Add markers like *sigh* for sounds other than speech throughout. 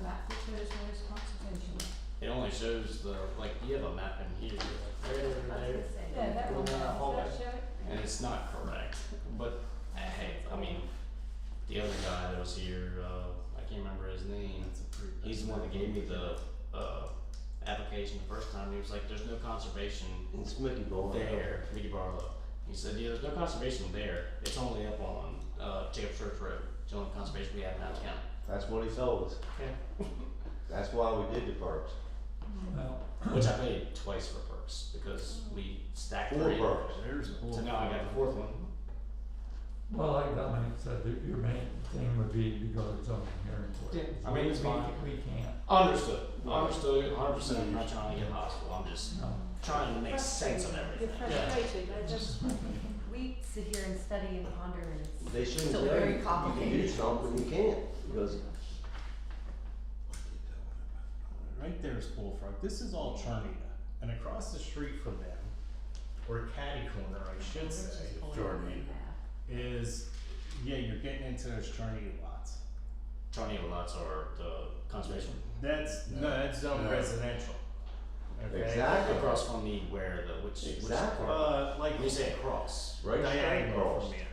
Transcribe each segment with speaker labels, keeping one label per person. Speaker 1: shows where his concentration was.
Speaker 2: It only shows the, like, you have a map in here,
Speaker 3: There,
Speaker 1: Yeah, that one,
Speaker 3: Going down the hallway.
Speaker 1: does that show it?
Speaker 2: and it's not correct, but, uh, hey, I mean, the other guy that was here, uh, I can't remember his name, he's the one that gave me the, uh, application the first time, he was like, there's no conservation
Speaker 3: It's Mickey Ball.
Speaker 2: there, Mickey Barlow. He said, yeah, there's no conservation there, it's only up on, uh, Jacob Church Road, it's the only conservation we have in Adams County.
Speaker 3: That's what he told us.
Speaker 2: Yeah.
Speaker 3: *laughs* That's why we did the parks.
Speaker 4: Well,
Speaker 2: Which I paid twice for perks, because we stacked
Speaker 3: Four
Speaker 2: three,
Speaker 3: parks.
Speaker 5: There's the
Speaker 2: so now I got the fourth one.
Speaker 4: well, like Dominic said, your- your main thing would be to go to zoning hearing board.
Speaker 2: Yeah, I mean, it's
Speaker 4: We-
Speaker 2: fine.
Speaker 4: We, we can't,
Speaker 2: Understood. Understood. 100%. I'm not trying to get hostile. I'm just
Speaker 4: no.
Speaker 2: trying to make sense of everything.
Speaker 1: It's
Speaker 2: Yeah.
Speaker 1: frustrating, I just,
Speaker 6: We sit here and study and ponder and it's
Speaker 3: They shouldn't
Speaker 6: Still
Speaker 3: tell you,
Speaker 6: very
Speaker 3: you can do
Speaker 6: complicated.
Speaker 3: something, you can't, because
Speaker 5: Right there is Bullfrog. This is all Charnita. And across the street from them, or Caddy Corner, I should say,
Speaker 6: Jordan.
Speaker 5: is, yeah, you're getting into those Charnita lots.
Speaker 2: Tornado lots are the conservation.
Speaker 5: That's, no,
Speaker 7: No.
Speaker 5: that's zone
Speaker 7: No.
Speaker 5: residential. Okay?
Speaker 3: Exactly.
Speaker 2: Across from the where the which
Speaker 3: Exactly.
Speaker 2: which uh,
Speaker 5: Uh, like.
Speaker 2: you say across.
Speaker 3: right straight
Speaker 5: diagonal
Speaker 3: across.
Speaker 5: from there.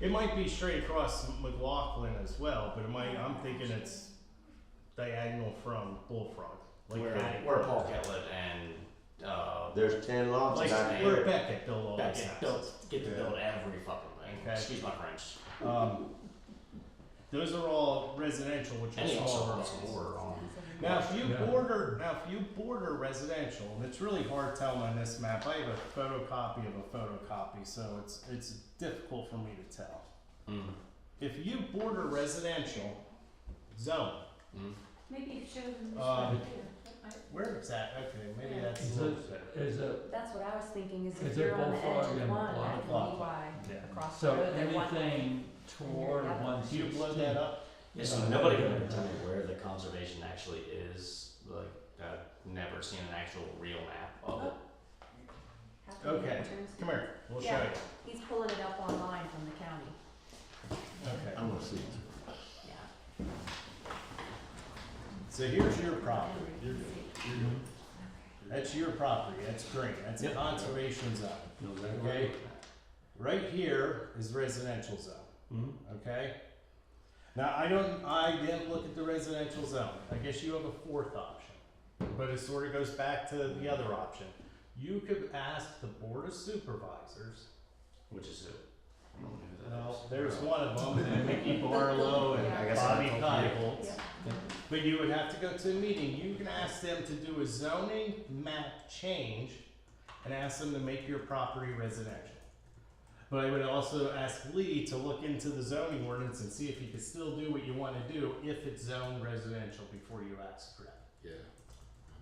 Speaker 5: It might be straight across McLaughlin as well, but it might, I'm thinking it's diagonal from Bullfrog. Like
Speaker 2: where
Speaker 5: Caddy
Speaker 2: where
Speaker 5: Corner.
Speaker 2: Paul Catlett and uh
Speaker 3: There's ten lots
Speaker 5: Like,
Speaker 3: back
Speaker 5: we're
Speaker 3: there.
Speaker 5: back at Bill
Speaker 2: that
Speaker 5: Lawless.
Speaker 2: get built get to
Speaker 7: Yeah.
Speaker 2: build every fucking thing.
Speaker 5: Okay.
Speaker 2: Excuse my French.
Speaker 5: Um, those are all residential, which
Speaker 2: And
Speaker 5: are
Speaker 2: he also
Speaker 5: smaller.
Speaker 2: runs an order on
Speaker 5: Now, if you
Speaker 4: Yeah.
Speaker 5: border, now if you border residential, and it's really hard telling on this map. I have a photocopy of a photocopy, so it's it's difficult for me to tell.
Speaker 2: mm.
Speaker 5: If you border residential zone,
Speaker 2: Mm.
Speaker 1: maybe it shows in this
Speaker 4: Uh,
Speaker 1: right
Speaker 5: Um,
Speaker 1: here, but I,
Speaker 5: where is that? Okay, maybe that's
Speaker 4: Is
Speaker 5: a little
Speaker 4: it,
Speaker 5: bit.
Speaker 4: is it,
Speaker 6: That's what I was thinking, is
Speaker 4: Is
Speaker 6: if
Speaker 4: there
Speaker 6: you're on the
Speaker 4: bullfrog
Speaker 6: edge of
Speaker 4: and
Speaker 6: one, that could be
Speaker 5: block?
Speaker 6: why
Speaker 5: Yeah.
Speaker 6: across the
Speaker 4: so
Speaker 6: road at one.
Speaker 4: anything toward
Speaker 6: Yeah.
Speaker 4: one
Speaker 5: Do you
Speaker 4: sixteen?
Speaker 5: blow that up?
Speaker 2: Yeah, so nobody can ever tell me where the conservation actually is. Like I've never seen an actual real map of it.
Speaker 6: How can we
Speaker 5: Okay.
Speaker 6: turn some-
Speaker 5: Come here, we'll show
Speaker 6: Yeah.
Speaker 5: you.
Speaker 6: He's pulling it up online from the county,
Speaker 5: Okay.
Speaker 3: I'm gonna see.
Speaker 6: yeah.
Speaker 5: So here's your property.
Speaker 6: Everybody
Speaker 5: You're
Speaker 6: can
Speaker 5: good.
Speaker 6: see it.
Speaker 5: You're good. That's your property. That's green. That's a
Speaker 2: Yep.
Speaker 5: conservation zone.
Speaker 3: No,
Speaker 5: Okay. Right here is residential zone,
Speaker 2: Mm-hmm.
Speaker 5: okay? Now, I don't, I didn't look at the residential zone. I guess you have a fourth option. But it sort of goes back to the other option. You could ask the board of supervisors.
Speaker 2: Which is who? I don't know who that
Speaker 5: Well,
Speaker 2: is.
Speaker 5: there's one of them, and Mickey Barlow
Speaker 6: I
Speaker 5: and
Speaker 6: guess
Speaker 5: Bobby
Speaker 2: I'm
Speaker 5: Knievel.
Speaker 6: Yeah.
Speaker 5: But you would have to go to a meeting. You can ask them to do a zoning map change and ask them to make your property residential. But I would also ask Lee to look into the zoning ordinance and see if you can still do what you want to do if it's zoned residential before you ask for that.
Speaker 7: Yeah.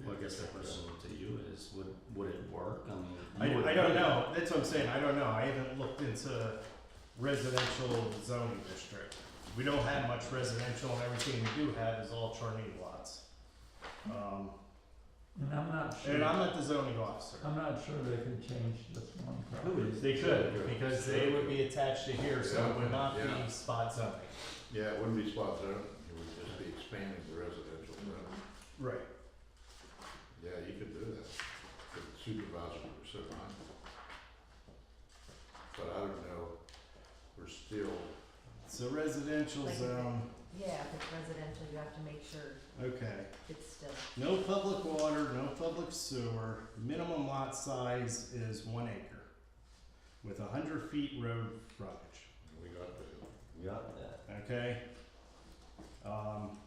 Speaker 2: Well, I guess the question to you is, would, would it work? I mean.
Speaker 5: I,
Speaker 2: you would
Speaker 5: I don't
Speaker 2: think-
Speaker 5: know. That's what I'm saying. I don't know. I haven't looked into residential zoning district. We don't have much residential and everything we do have is all Charney lots. Um,
Speaker 4: And I'm not sure,
Speaker 5: and I'm not the zoning officer.
Speaker 4: I'm not sure they can change this one property.
Speaker 5: They could, because they would be attached to here, so it would not
Speaker 7: Yeah.
Speaker 5: be spot zoning.
Speaker 7: Yeah, it wouldn't be spot zoning, it would just be expanding the residential zone.
Speaker 5: Right.
Speaker 7: Yeah, you could do that, but the supervisor would sit on. it. But I don't know, we're still,
Speaker 5: So residential
Speaker 6: Like-
Speaker 5: zone,
Speaker 6: Yeah, if it's residential, you have to make sure
Speaker 5: okay.
Speaker 6: it's still,
Speaker 5: No public water, no public sewer, minimum lot size is one acre with a hundred feet road frontage,
Speaker 7: we got the,
Speaker 3: Got that.
Speaker 5: okay? Um,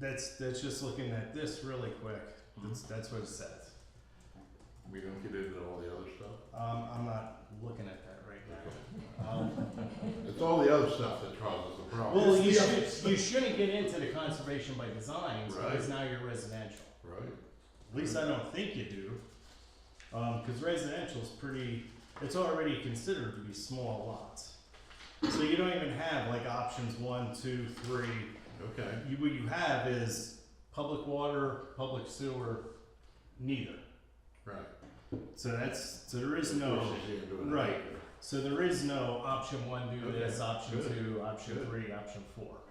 Speaker 5: that's, that's just looking at this really quick, that's,
Speaker 7: Mm-hmm.
Speaker 5: that's what it says.
Speaker 7: we don't get into all the other stuff.
Speaker 5: Um, I'm not looking at that right now. Um,
Speaker 7: *laughs* It's all the other stuff that causes the problem.
Speaker 5: Well,
Speaker 7: It's
Speaker 5: you
Speaker 7: the other
Speaker 5: should,
Speaker 7: stuff.
Speaker 5: you shouldn't get into the conservation by design, because
Speaker 7: Right. Mm-hmm.
Speaker 5: now you're residential.
Speaker 7: Right,
Speaker 5: At least I don't think you do. Um, cause residential's pretty, it's already considered to be small lots. So you don't even have like options one, two, three.
Speaker 7: okay,
Speaker 5: You, what you have is public water, public sewer, neither.
Speaker 7: right.
Speaker 5: So that's, so there is no.
Speaker 7: Pushes you into another
Speaker 5: right.
Speaker 7: acre.
Speaker 5: So there is no option one, do
Speaker 7: Okay,
Speaker 5: this, option
Speaker 7: good,
Speaker 5: two, option
Speaker 7: good.
Speaker 5: three, option four.